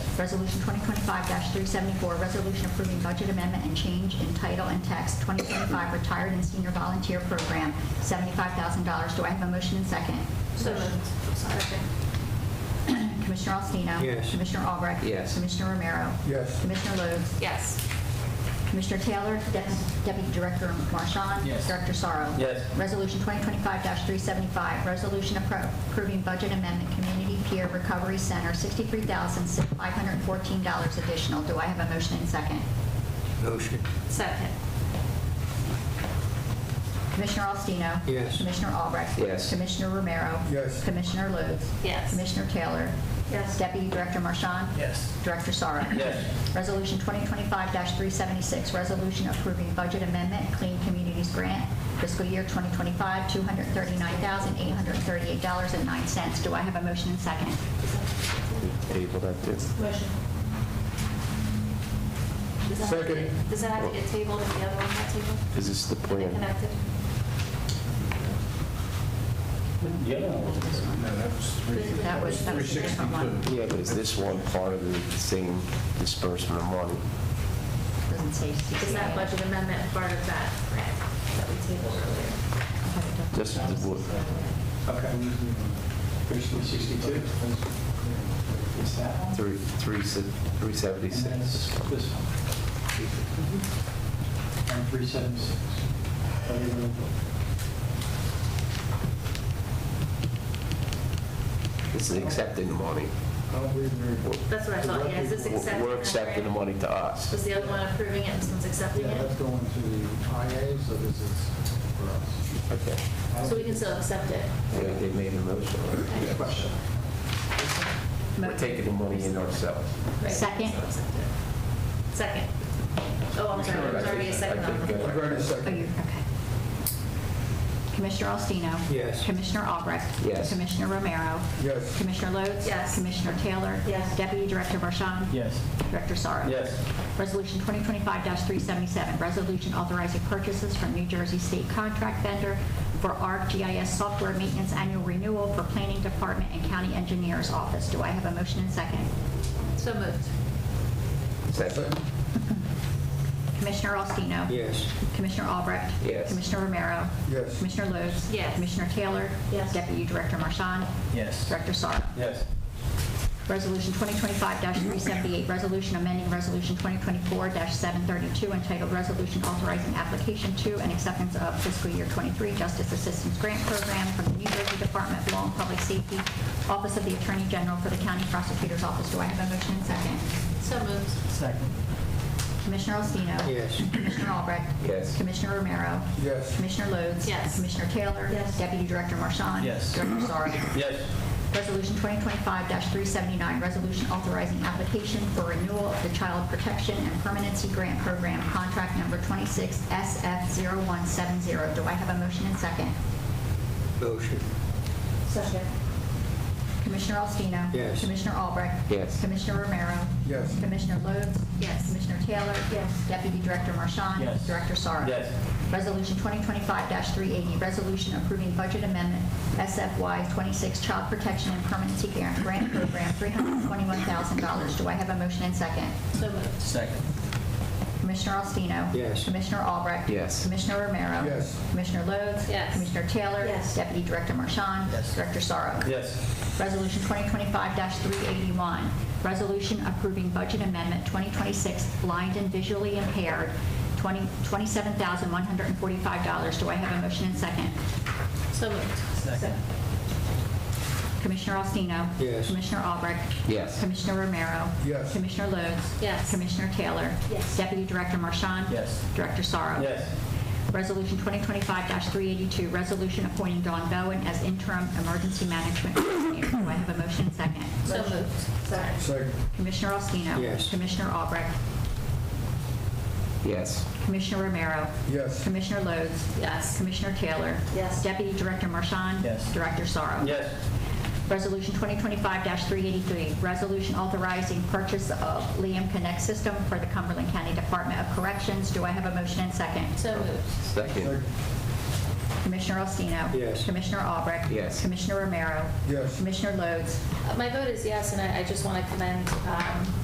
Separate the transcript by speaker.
Speaker 1: Resolution 2025-374, resolution approving budget amendment and change in title and text, 2025 Retired and Senior Volunteer Program, $75,000. Do I have a motion and second?
Speaker 2: So moved. Second.
Speaker 1: Commissioner Alstino.
Speaker 3: Yes.
Speaker 1: Commissioner Albrecht.
Speaker 4: Yes.
Speaker 1: Commissioner Romero.
Speaker 3: Yes.
Speaker 1: Commissioner Lodes.
Speaker 2: Yes.
Speaker 1: Commissioner Taylor, Dep- Deputy Director Marchand.
Speaker 5: Yes.
Speaker 1: Director Sorrow.
Speaker 4: Yes.
Speaker 1: Resolution 2025-375, resolution appro- approving budget amendment, Community Peer Recovery Center, $63,514 additional. Do I have a motion and second?
Speaker 3: Motion.
Speaker 2: Second.
Speaker 1: Commissioner Alstino.
Speaker 3: Yes.
Speaker 1: Commissioner Albrecht.
Speaker 4: Yes.
Speaker 1: Commissioner Romero.
Speaker 3: Yes.
Speaker 1: Commissioner Lodes.
Speaker 2: Yes.
Speaker 1: Commissioner Taylor.
Speaker 2: Yes.
Speaker 1: Deputy Director Marchand.
Speaker 5: Yes.
Speaker 1: Director Sorrow.
Speaker 4: Yes.
Speaker 1: Resolution 2025-376, resolution approving budget amendment, Clean Communities Grant, fiscal year 2025, $239,838.09. Do I have a motion and second?
Speaker 4: Table that did.
Speaker 2: Motion. Does that have to get-
Speaker 3: Second.
Speaker 2: Does that have to get tabled and the other one not tabled?
Speaker 4: Is this the
Speaker 2: Are they
Speaker 4: plan?
Speaker 2: connected?
Speaker 6: The other one was-
Speaker 5: No, that was three.
Speaker 1: That was, that was a different one.
Speaker 4: Yeah, but is this one part of the same disbursement of money?
Speaker 1: Doesn't say CCA.
Speaker 2: Is that budget amendment part of that grant that we tabled earlier?
Speaker 4: Just the wood.
Speaker 6: Okay. Thirteen sixty-two? Is that one?
Speaker 4: Three, three, se- three
Speaker 6: And then it's
Speaker 4: seventy-six.
Speaker 6: this one. And three seven six.
Speaker 4: This is accepting the money.
Speaker 5: Oh,
Speaker 2: That's what I thought, yeah, is this accepting?
Speaker 4: We're
Speaker 2: that
Speaker 4: accepting the
Speaker 2: grant?
Speaker 4: money to
Speaker 2: Was
Speaker 4: us.
Speaker 2: the other one approving it and this one's accepting
Speaker 5: Yeah, that's
Speaker 2: it?
Speaker 5: going to the IA, so this is for us.
Speaker 4: Okay.
Speaker 2: So we can still accept it?
Speaker 4: Yeah, they made a motion.
Speaker 2: Okay.
Speaker 6: Question.
Speaker 4: We're taking the money in ourselves.
Speaker 2: Right,
Speaker 1: Second.
Speaker 2: so accept it. Second. Oh, I'm sorry, there's already a second on the floor.
Speaker 4: I think,
Speaker 1: Oh,
Speaker 4: uh,
Speaker 1: you- okay. Commissioner Alstino.
Speaker 3: Yes.
Speaker 1: Commissioner Albrecht.
Speaker 4: Yes.
Speaker 1: Commissioner Romero.
Speaker 3: Yes.
Speaker 1: Commissioner Lodes.
Speaker 2: Yes.
Speaker 1: Commissioner Taylor.
Speaker 2: Yes.
Speaker 1: Deputy Director Marchand.
Speaker 5: Yes.
Speaker 1: Director Sorrow.
Speaker 4: Yes.
Speaker 1: Resolution 2025-377, resolution authorizing purchases from New Jersey State Contract Vendor for ArcGIS Software Maintenance Annual Renewal for Planning Department and County Engineers Office. Do I have a motion and second?
Speaker 2: So moved.
Speaker 4: Second.
Speaker 1: Commissioner Alstino.
Speaker 3: Yes.
Speaker 1: Commissioner Albrecht.
Speaker 4: Yes.
Speaker 1: Commissioner Romero.
Speaker 3: Yes.
Speaker 1: Commissioner Lodes.
Speaker 2: Yes.
Speaker 1: Commissioner Taylor.
Speaker 2: Yes.
Speaker 1: Deputy Director Marchand.
Speaker 5: Yes.
Speaker 1: Director Sorrow.
Speaker 6: Yes.
Speaker 1: Resolution 2025-378, resolution amending Resolution 2024-732 entitled Resolution Authorizing Application to and Acceptance of Fiscal Year 23 Justice Assistance Grant Program from the New Jersey Department of Law and Public Safety, Office of the Attorney General for the County Prosecutor's Office. Do I have a motion and second?
Speaker 2: So moved.
Speaker 5: Second.
Speaker 1: Commissioner Alstino.
Speaker 3: Yes.
Speaker 1: Commissioner Albrecht.
Speaker 4: Yes.
Speaker 1: Commissioner Romero.
Speaker 3: Yes.
Speaker 1: Commissioner Lodes.
Speaker 2: Yes.
Speaker 1: Commissioner Taylor.
Speaker 2: Yes.
Speaker 1: Deputy Director Marchand.
Speaker 5: Yes.
Speaker 1: Director Sorrow.
Speaker 4: Yes.
Speaker 1: Resolution 2025-379, resolution authorizing application for renewal of the Child Protection and Permanency Grant Program, contract number 26SF0170. Do I have a motion and second?
Speaker 3: Motion.
Speaker 2: Second.
Speaker 1: Commissioner Alstino.
Speaker 3: Yes.
Speaker 1: Commissioner Albrecht.
Speaker 4: Yes.
Speaker 1: Commissioner Romero.
Speaker 3: Yes.
Speaker 1: Commissioner Lodes.
Speaker 2: Yes.
Speaker 1: Commissioner Taylor.
Speaker 2: Yes.
Speaker 1: Deputy Director Marchand.
Speaker 5: Yes.
Speaker 1: Director Sorrow.
Speaker 4: Yes.
Speaker 1: Resolution 2025-380, resolution approving budget amendment SFY 26 Child Protection and Permanency Guarant- Grant Program, $321,000. Do I have a motion and second?
Speaker 2: So moved.
Speaker 5: Second.
Speaker 1: Commissioner Alstino.
Speaker 3: Yes.
Speaker 1: Commissioner Albrecht.
Speaker 4: Yes.
Speaker 1: Commissioner Romero.
Speaker 3: Yes.
Speaker 1: Commissioner Lodes.
Speaker 2: Yes.
Speaker 1: Commissioner Taylor.
Speaker 2: Yes.
Speaker 1: Deputy Director Marchand.
Speaker 5: Yes.
Speaker 1: Director Sorrow.
Speaker 4: Yes.
Speaker 1: Resolution 2025-381, resolution approving budget amendment 2026 blind and visually impaired, 20 $27,145. Do I have a motion and second?
Speaker 2: So moved.
Speaker 5: Second.
Speaker 1: Commissioner Alstino.
Speaker 3: Yes.
Speaker 1: Commissioner Albrecht.
Speaker 4: Yes.
Speaker 1: Commissioner Romero.
Speaker 3: Yes.
Speaker 1: Commissioner Lodes.
Speaker 2: Yes.
Speaker 1: Commissioner Taylor.
Speaker 2: Yes.
Speaker 1: Deputy Director Marchand.
Speaker 5: Yes.
Speaker 1: Director Sorrow. Resolution 2025-382, resolution appointing Dawn Bowen as interim emergency management coordinator. Do I have a motion and second?
Speaker 2: So moved. Sorry.
Speaker 3: Second.
Speaker 1: Commissioner Alstino.
Speaker 3: Yes.
Speaker 1: Commissioner Albrecht.
Speaker 4: Yes.
Speaker 1: Commissioner Romero.
Speaker 3: Yes.
Speaker 1: Commissioner Lodes.
Speaker 2: Yes.
Speaker 1: Commissioner Taylor.
Speaker 2: Yes.
Speaker 1: Deputy Director Marchand.
Speaker 5: Yes.
Speaker 1: Director Sorrow.
Speaker 4: Yes.
Speaker 1: Resolution 2025-383, resolution authorizing purchase of Liam Connect system for the Cumberland County Department of Corrections. Do I have a motion and second?
Speaker 2: So moved.
Speaker 4: Second.
Speaker 1: Commissioner Alstino.
Speaker 3: Yes.
Speaker 1: Commissioner Albrecht.
Speaker 4: Yes.
Speaker 1: Commissioner Romero.
Speaker 3: Yes.
Speaker 1: Commissioner Lodes.
Speaker 2: Uh, My vote is yes, and I I just want to commend um,